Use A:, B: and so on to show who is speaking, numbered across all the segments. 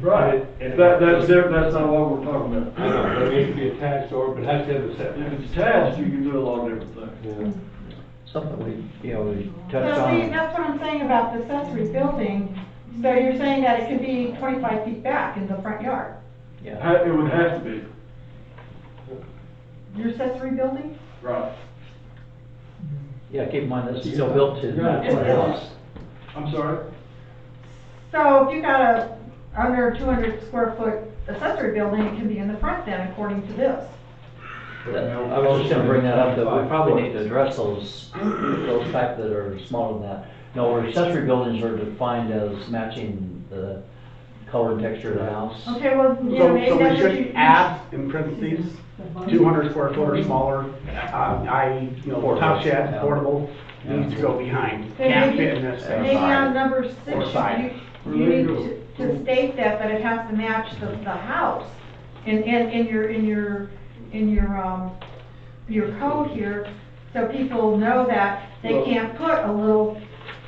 A: Right,
B: And-
A: that, that's, there- that's not what we're talking about.
B: I don't know, it needs to be attached or, but it has to have a
A: If
B: setback.
A: it's attached, you can do a lot of different things.
B: Yeah.
C: Something we, you know, we touched
D: Now, see,
C: on.
D: that's what I'm saying about the accessory building, so you're saying that it could be twenty-five feet back in the front yard,
C: Yeah.
A: Ha- It would have to be,
D: your accessory building?
A: right.
C: Yeah, keep in mind, this is still built to that
D: It's built.
C: house.
A: I'm sorry?
D: So if you got a under two hundred square foot accessory building, it can be in the front then, according to this.
C: That- I was just gonna bring that up, that we probably need to address those, those type that are smaller than that. No, our accessory buildings are defined as matching the color and texture of the house.
D: Okay, well,
E: So,
D: you know, maybe
E: so we
D: that's what
E: should
D: you.
E: add in parentheses, two hundred square foot or smaller, uh, i.e., you know, top shed, portable, needs to go behind,
D: Okay,
E: can't
D: maybe-
E: fit in this thing.
D: Maybe on number
E: Or
D: six,
E: side.
D: you, you need to, to state that, but it has to match the, the house. In, in, in your, in your, in your, um, your code here, so people know that they
A: Well-
D: can't put a little,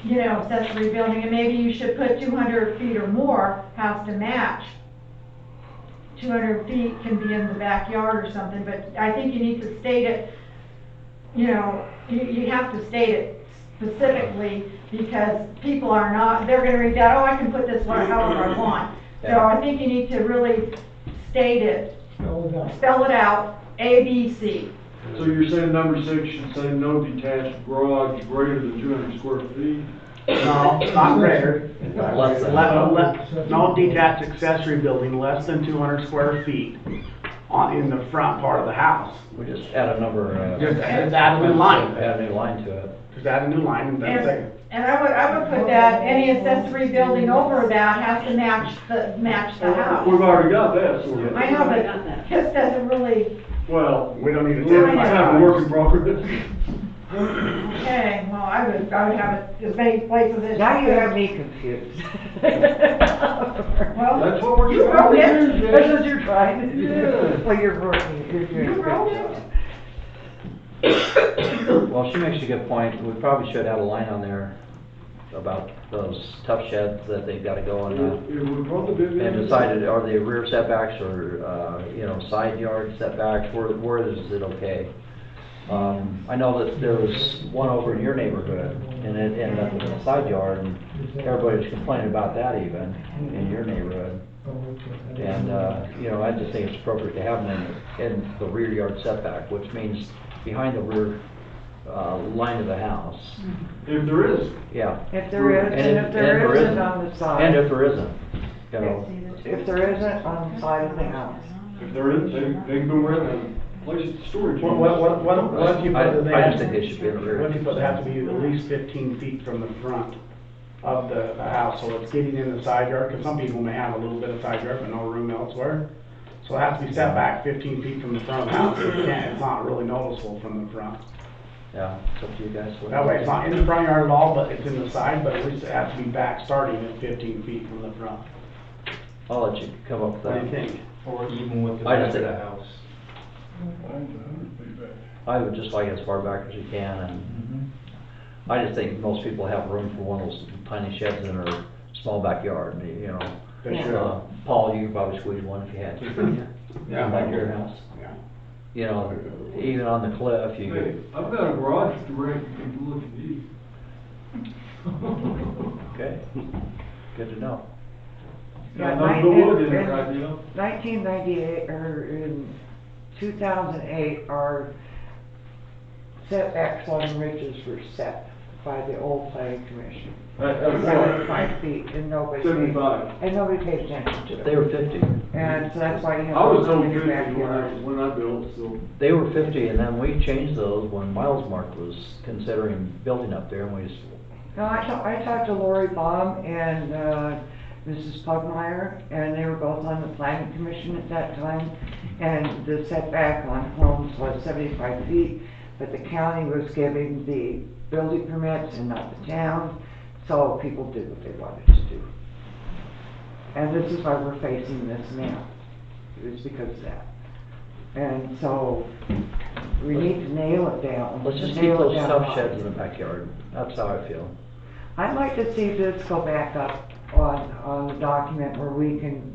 D: you know, accessory building, and maybe you should put two hundred feet or more, has to match. Two hundred feet can be in the backyard or something, but I think you need to state it, you know, you, you have to state it specifically, because people are not, they're gonna read that, oh, I can put this one however I want. So
C: Yeah.
D: I think you need to really state it, spell it out, A, B, C.
A: So you're saying number six should say no detached garage greater than two hundred square feet?
E: No, not greater.
C: Less than.
E: Le- le- No detached accessory building less than two hundred square feet on, in the front part of the house.
C: We just add a number. uh,
E: Just add add a new line,
C: Add a new line to it.
E: just add a new line and that's
D: And,
E: it.
D: and I would, I would put that, any accessory building over that has to match the, match the
A: We've
D: house.
A: already got that, sort of.
D: I know, but this doesn't really,
A: Well,
E: We don't need to.
A: we have a work in progress.
D: okay, well, I would, I would have it as many places as.
F: Now you have me confused.
D: Well,
A: That's what we're
D: you wrote it.
A: trying to do.
F: That's what you're trying to do.
A: Yeah.
F: Well, you're working, you're doing. a
D: You
F: good
D: wrote
F: job.
D: it.
C: Well, she makes a good point. We probably should add a line on there about those tough sheds that they've gotta go on. uh,
A: It it would probably be.
C: And decided, are they rear setbacks or, uh, you know, side yard setbacks, where, where is it okay? Um, I know that there was one over in your neighborhood, and it ended up in a side yard, and everybody was complaining about that even, in your neighborhood. And, uh, you know, I just think it's appropriate to have them in, in the rear yard setback, which means behind the rear, uh, line of the house,
A: If there is,
C: yeah.
F: If there is, and if there isn't on the
C: And
F: side,
C: if there isn't, you know,
F: if there isn't on the side of the house.
A: if there is, they, they can go around and place it to storage.
E: What, what, what, what what if you
C: I-
E: put the.
C: I just think they should be in the rear.
E: What if you put, they have to be at least fifteen feet from the front of the, the house, so it's getting in the side yard, because some people may have a little bit of side yard, but no room elsewhere. So it has to be set back fifteen feet from the front of the house, if you can't, it's not really noticeable from the front.
C: yeah, it's up to you guys. what-
E: That way, it's not in the front yard at all, but it's in the side, but at least it has to be back starting at fifteen feet from the front.
C: I'll let you come up with
E: What do you
C: that.
E: think?
G: Or even with the
C: I
G: back
C: just
G: of the
C: think-
G: house.
A: Mm-hmm.
C: I would just like it as far back as you can, and I just think most people have room for one of those tiny sheds in their small backyard, you know.
E: They
C: Uh,
E: should.
C: Paul, you could probably squeeze one if you had to, couldn't you? Back your house,
E: Yeah.
C: you know, even on the cliff, you
A: Hey,
C: could,
A: I've got a garage to rent, you can look at these.
C: okay, good to know.
F: Yeah,
A: Got
F: mine
A: nothing to look
F: is-
A: at right now.
F: Nineteen ninety-eight, or in two thousand eight, our setbacks on ridges were set by the old planning commission.
A: That- that's
F: Seventy-five
A: what-
F: feet, and nobody paid,
A: Seventy-five.
F: and nobody paid attention to it.
C: They were fifty,
F: And so that's why you
A: I
F: have.
A: was
F: to
A: told
F: in your
A: fifty when I,
F: backyard.
A: when I built, so.
C: they were fifty, and then we changed those when Miles Mark was considering building up there, and we just,
F: No, I talked, I talked to Lori Baum and, uh, Mrs. Pugmire, and they were both on the planning commission at that time. And the setback on homes was seventy-five feet, but the county was giving the building permits and not the town. So people did what they wanted to do. And this is why we're facing this now, It was because of that. And so, we need to nail it down.
C: let's just keep
F: nail it
C: those
F: down
C: tough
F: hard.
C: sheds in the backyard, that's how I feel.
F: I'd like to see this go back up on, on the document where we can